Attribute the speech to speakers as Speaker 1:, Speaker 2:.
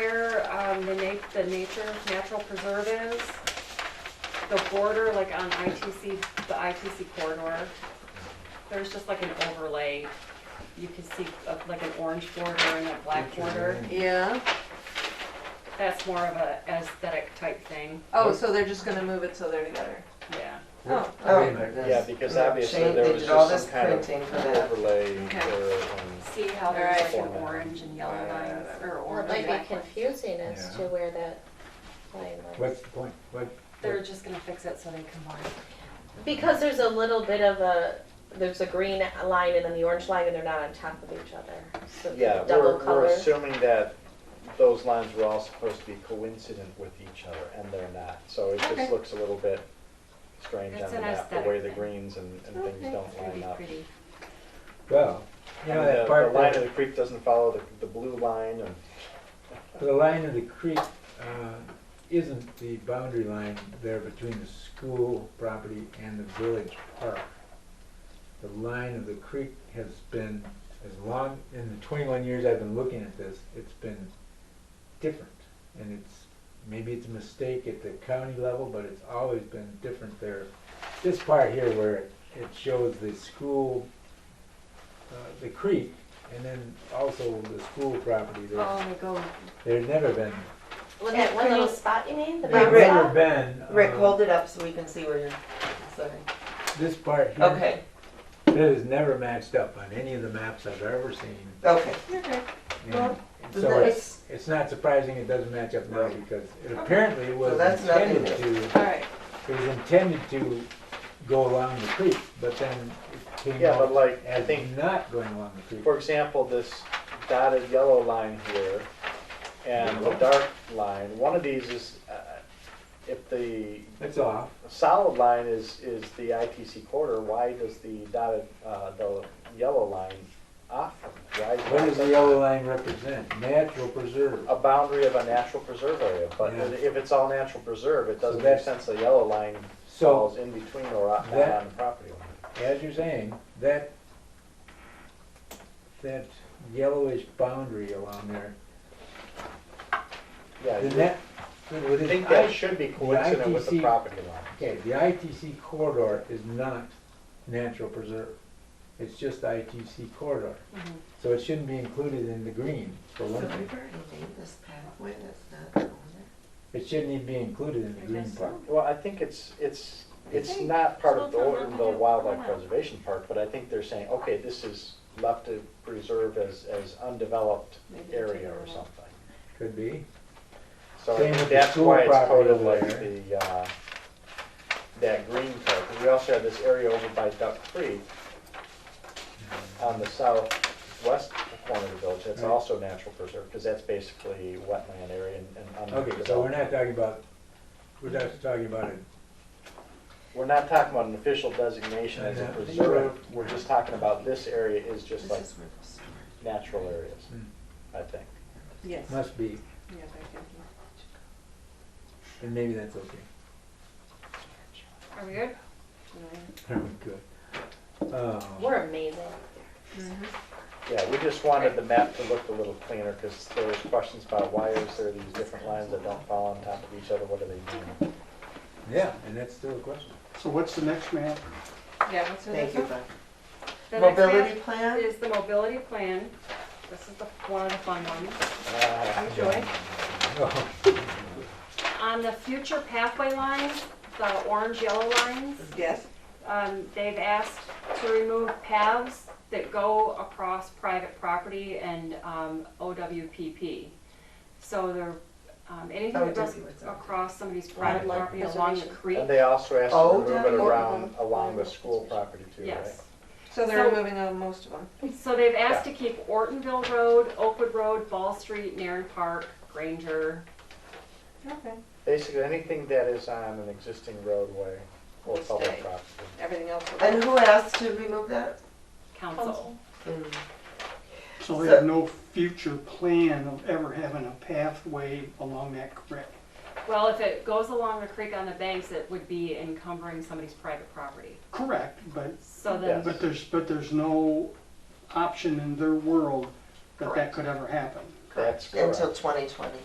Speaker 1: where, um, the na- the nature, natural preserve is, the border, like on ITC, the ITC corridor, there's just like an overlay, you can see uh, like an orange border and a black border,
Speaker 2: Yeah,
Speaker 1: that's more of a aesthetic type thing,
Speaker 2: oh, so they're just gonna move it so they're together.
Speaker 1: yeah.
Speaker 2: Oh,
Speaker 3: Oh,
Speaker 2: okay.
Speaker 4: Yeah,
Speaker 3: this.
Speaker 4: because
Speaker 3: Yeah,
Speaker 4: obviously
Speaker 3: change-
Speaker 4: there
Speaker 3: they
Speaker 4: was
Speaker 3: did all
Speaker 4: just some
Speaker 3: this
Speaker 4: kind of
Speaker 3: printing for that.
Speaker 4: overlay
Speaker 2: Okay.
Speaker 4: or, um,
Speaker 1: See how there's like an
Speaker 4: Alright.
Speaker 1: orange and yellow lines, or
Speaker 5: Well, it
Speaker 1: orange
Speaker 5: might
Speaker 1: and
Speaker 5: be
Speaker 1: black. lines.
Speaker 5: confusing as to
Speaker 6: Yeah.
Speaker 5: where that line was.
Speaker 6: What's the point? What?
Speaker 1: They're just gonna fix it so they combine.
Speaker 5: Because there's a little bit of a, there's a green line and then the orange line and they're not on top of each other. So it's
Speaker 4: Yeah,
Speaker 5: double
Speaker 4: we're, we're
Speaker 5: color.
Speaker 4: assuming that those lines were all supposed to be coincident with each other, and they're not. So it
Speaker 1: Okay.
Speaker 4: just looks a little bit strange
Speaker 1: It's
Speaker 4: on the
Speaker 1: an
Speaker 4: map, the way the
Speaker 1: aesthetic thing.
Speaker 4: greens and, and things
Speaker 2: Okay.
Speaker 4: don't
Speaker 1: It's gonna
Speaker 4: line
Speaker 1: be
Speaker 4: up.
Speaker 1: pretty.
Speaker 6: Well, you
Speaker 4: And
Speaker 6: know,
Speaker 4: the,
Speaker 6: that
Speaker 4: the
Speaker 6: part,
Speaker 4: line of
Speaker 6: where
Speaker 4: the creek doesn't follow the, the blue line, and
Speaker 6: the line of the creek, uh, isn't the boundary line there between the school property and the village park. The line of the creek has been, as long, in the twenty-one years I've been looking at this, it's been different. And it's, maybe it's a mistake at the county level, but it's always been different there. This part here where it shows the school, uh, the creek, and then also the school property there.
Speaker 1: Oh, they go,
Speaker 6: There's never been.
Speaker 5: Well, that one little spot you mean? The
Speaker 3: Hey,
Speaker 5: brown
Speaker 3: Rick.
Speaker 6: There's never
Speaker 5: spot?
Speaker 6: been. uh,
Speaker 3: Rick, hold it up so we can see where you're, sorry.
Speaker 6: This part here.
Speaker 3: Okay,
Speaker 6: It has never matched up on any of the maps I've ever seen.
Speaker 3: okay.
Speaker 6: And
Speaker 3: Well,
Speaker 6: So it's, it's not surprising it doesn't match up now
Speaker 3: Right.
Speaker 6: because it apparently was
Speaker 3: that's nothing
Speaker 6: intended to,
Speaker 2: Alright,
Speaker 6: it was intended to go along the creek, but then it came
Speaker 4: Yeah, but
Speaker 6: out
Speaker 4: like, I
Speaker 6: as
Speaker 4: think-
Speaker 6: not going along the creek.
Speaker 4: for example, this dotted yellow line here and the dark line, one of these is, uh, if the
Speaker 6: It's off.
Speaker 4: solid line is, is the ITC corridor, why does the dotted, uh, the yellow line off? from it? Why is
Speaker 6: What does the
Speaker 4: that
Speaker 6: yellow line represent? Natural preserve.
Speaker 4: A boundary of a natural preserve area, but
Speaker 6: Yeah.
Speaker 4: if it's all natural preserve, it doesn't make
Speaker 6: that's-
Speaker 4: sense the yellow line
Speaker 6: So
Speaker 4: falls in between or out
Speaker 6: That-
Speaker 4: on the property line.
Speaker 6: as you're saying, that, that yellowish boundary along there,
Speaker 4: Yeah,
Speaker 6: the
Speaker 4: you
Speaker 6: net, with
Speaker 4: would
Speaker 6: its
Speaker 4: think
Speaker 6: I-
Speaker 4: that should be coincident with the
Speaker 6: ITC
Speaker 4: property line.
Speaker 6: okay, the ITC corridor is not natural preserve. It's just ITC corridor.
Speaker 1: Mhm.
Speaker 6: So it shouldn't be included in the green, for
Speaker 3: So
Speaker 6: one
Speaker 3: we've
Speaker 6: thing.
Speaker 3: already made this pathway that's not over there.
Speaker 6: It shouldn't even be included in the
Speaker 1: I
Speaker 6: green
Speaker 1: guess
Speaker 6: part.
Speaker 4: Well, I think it's, it's, it's
Speaker 2: Okay.
Speaker 4: not part of the,
Speaker 2: So it's not
Speaker 4: the
Speaker 2: like it-
Speaker 4: wildlife
Speaker 2: why not?
Speaker 4: preservation part, but I think they're saying, okay, this is left to preserve as, as undeveloped
Speaker 2: Maybe they
Speaker 4: area
Speaker 2: take
Speaker 4: or
Speaker 2: it out.
Speaker 4: something.
Speaker 6: Could be.
Speaker 4: So I
Speaker 6: Same
Speaker 4: think
Speaker 6: with the
Speaker 4: that's
Speaker 6: school
Speaker 4: why it's
Speaker 6: property
Speaker 4: coded
Speaker 6: over
Speaker 4: like
Speaker 6: there.
Speaker 4: the, uh, that green part, 'Cause we also have this area over by Duck Creek on the southwest corner of the village, that's
Speaker 6: Right.
Speaker 4: also natural preserve, because that's basically wetland area and, and
Speaker 6: Okay, so we're not
Speaker 4: undeveloped.
Speaker 6: talking about, we're just talking about it.
Speaker 4: We're not talking about an official designation as a
Speaker 6: Yeah.
Speaker 4: preserve, we're just talking about this area is just like
Speaker 3: This is where the storage.
Speaker 4: natural areas,
Speaker 6: Hmm.
Speaker 4: I think.
Speaker 2: yes, yeah,
Speaker 6: Must be,
Speaker 2: back in here.
Speaker 6: and maybe that's okay.
Speaker 1: are we good?
Speaker 6: Good. Uh,
Speaker 5: We're amazing.
Speaker 4: Yeah, we just wanted the map to look a little cleaner, because there was questions about why is there these different lines that don't fall on top of each other, what do they mean?
Speaker 6: Yeah, and that's still a question.
Speaker 7: So what's the next map?
Speaker 2: Yeah, what's the
Speaker 3: Thank
Speaker 2: next
Speaker 3: you,
Speaker 2: one?
Speaker 3: Bob.
Speaker 1: The next map
Speaker 3: Mobility plan?
Speaker 1: Is the mobility plan, this is the, one of the fun ones,
Speaker 4: Ah,
Speaker 1: enjoy.
Speaker 6: Oh,
Speaker 1: On the future pathway lines, the orange, yellow lines,
Speaker 2: Yes,
Speaker 1: um, they've asked to remove paths that go across private property and, um, OWPP. So they're, um, anything that goes
Speaker 3: OWPP, what's that?
Speaker 1: across somebody's private
Speaker 5: Wildlife
Speaker 1: property along the
Speaker 5: preservation.
Speaker 1: creek,
Speaker 4: And they also asked
Speaker 3: Oh,
Speaker 4: to remove it
Speaker 3: yeah.
Speaker 4: around, along the school property too, right?
Speaker 1: yes.
Speaker 2: so they're
Speaker 1: So-
Speaker 2: removing uh, most of them.
Speaker 1: So they've asked to keep Ortonville Road, Oakwood Road, Ball Street, Narren Park, Granger,
Speaker 2: Okay.
Speaker 4: Basically, anything that is on an existing roadway or
Speaker 2: Will
Speaker 4: public
Speaker 2: stay.
Speaker 4: property.
Speaker 2: Everything else. will-
Speaker 3: And who asked to remove that?
Speaker 1: Council.
Speaker 7: So we have no future plan of ever having a pathway along that creek.
Speaker 1: Well, if it goes along the creek on the banks, it would be encumbering somebody's private property.
Speaker 7: Correct, but,
Speaker 1: So then,
Speaker 4: Yes.
Speaker 7: but there's, but there's no option in their world that that could ever happen.
Speaker 3: correct,
Speaker 4: That's correct.
Speaker 3: until twenty twenty.